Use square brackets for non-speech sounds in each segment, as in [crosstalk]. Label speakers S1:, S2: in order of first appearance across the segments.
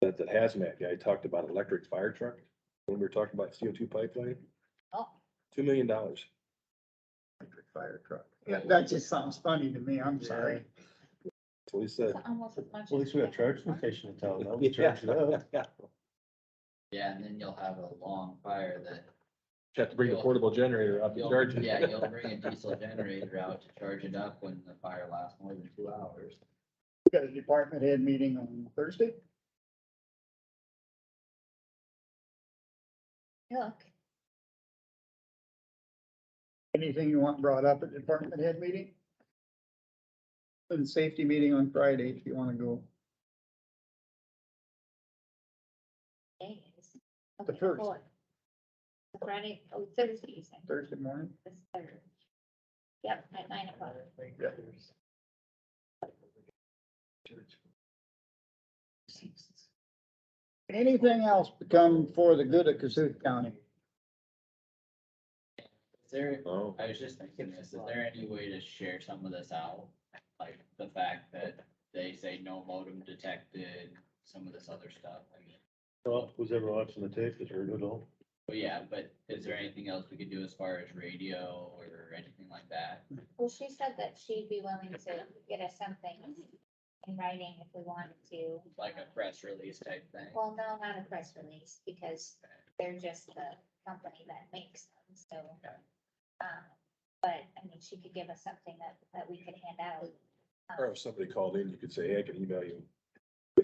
S1: That, that hazmat guy talked about electric fire truck, when we were talking about CO two pipeline,
S2: Oh,
S1: two million dollars.
S3: Electric fire truck.
S4: Yeah, that just sounds funny to me, I'm sorry.
S1: That's what he
S2: it's
S1: said.
S2: almost as much.
S5: At least we
S2: as-
S5: have charge station in town,
S6: [laughs]
S5: though. Oh, We charge it up.
S1: Yeah.
S6: Yeah, and then you'll have a long fire that.
S1: Have to bring a portable generator up to
S6: you'll-
S1: charge
S5: [laughs]
S1: it.
S6: Yeah, you'll
S1: [laughs]
S6: bring a diesel generator out to charge it up when the fire lasts more than two hours.
S4: We Got a department head meeting on Thursday?
S2: Look,
S4: Anything you want brought up at department head meeting? And safety meeting on Friday, if you wanna go.
S2: days.
S4: The
S2: Okay,
S4: first.
S2: four. Friday, oh, Thursday, you said,
S4: Thursday morning?
S2: the third. Yep, at nine o'clock.
S4: Anything else become for the good of Cassuth County?
S6: Is there,
S1: Oh,
S6: I was just thinking this, is there any way to share some of this out? Like the fact that they say no modem detected, some of this other stuff, I mean.
S5: Well, who's ever watching the tape has heard it all.
S6: But yeah, but is there anything else we could do as far as radio or anything like that?
S2: Well, she said that she'd be willing to get us something in writing if we wanted to.
S6: Like a press release type thing?
S2: Well, no, not a press release, because they're just the company that makes them, so.
S6: Okay.
S2: um, But, I mean, she could give us something that, that we could hand out. um,
S1: or if somebody called in, you could say, hey, I can email you.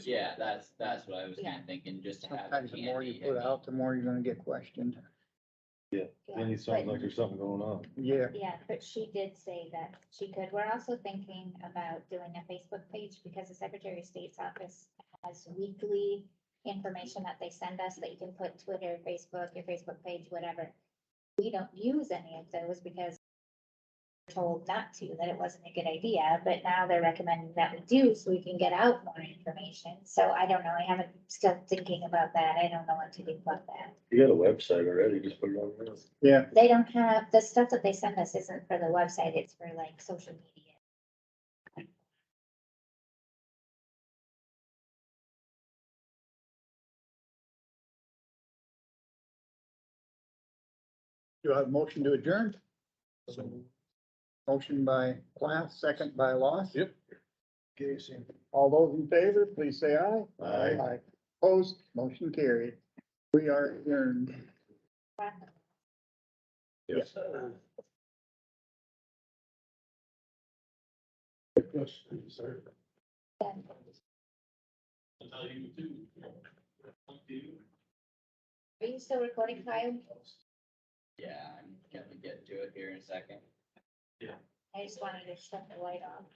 S6: Yeah, that's, that's what I was kind
S2: Yeah.
S6: of thinking, just to have
S4: Sometimes the more
S6: candy.
S4: you
S6: I
S4: put
S6: mean,
S4: out, the more you're gonna get questioned.
S2: yeah,
S5: Then it sounds
S2: but-
S5: like there's something going on.
S4: Yeah,
S2: Yeah, but she did say that she could. We're also thinking about doing a Facebook page because the Secretary of State's office has weekly information that they send us that you can put Twitter, Facebook, your Facebook page, whatever. We don't use any of those because we're told not to, that it wasn't a good idea, but now they're recommending that we do so we can get out more information. So I don't know. I haven't, still thinking about that. I don't know what to do about that.
S5: You got a website already, just put it on there.
S4: yeah,
S2: They don't have, the stuff that they send us isn't for the website, it's for like social media.
S4: do I have a motion to adjourn? Motion by class, second by loss.
S1: Yep.
S4: Jason, all those in favor, please say aye.
S5: Aye.
S4: Opposed, motion carried. We are adjourned.
S1: Yes.
S2: Yeah. Are you still recording, Kyle?
S6: Yeah, I'm gonna get to it here in a second.
S2: I just wanted to shut the light off.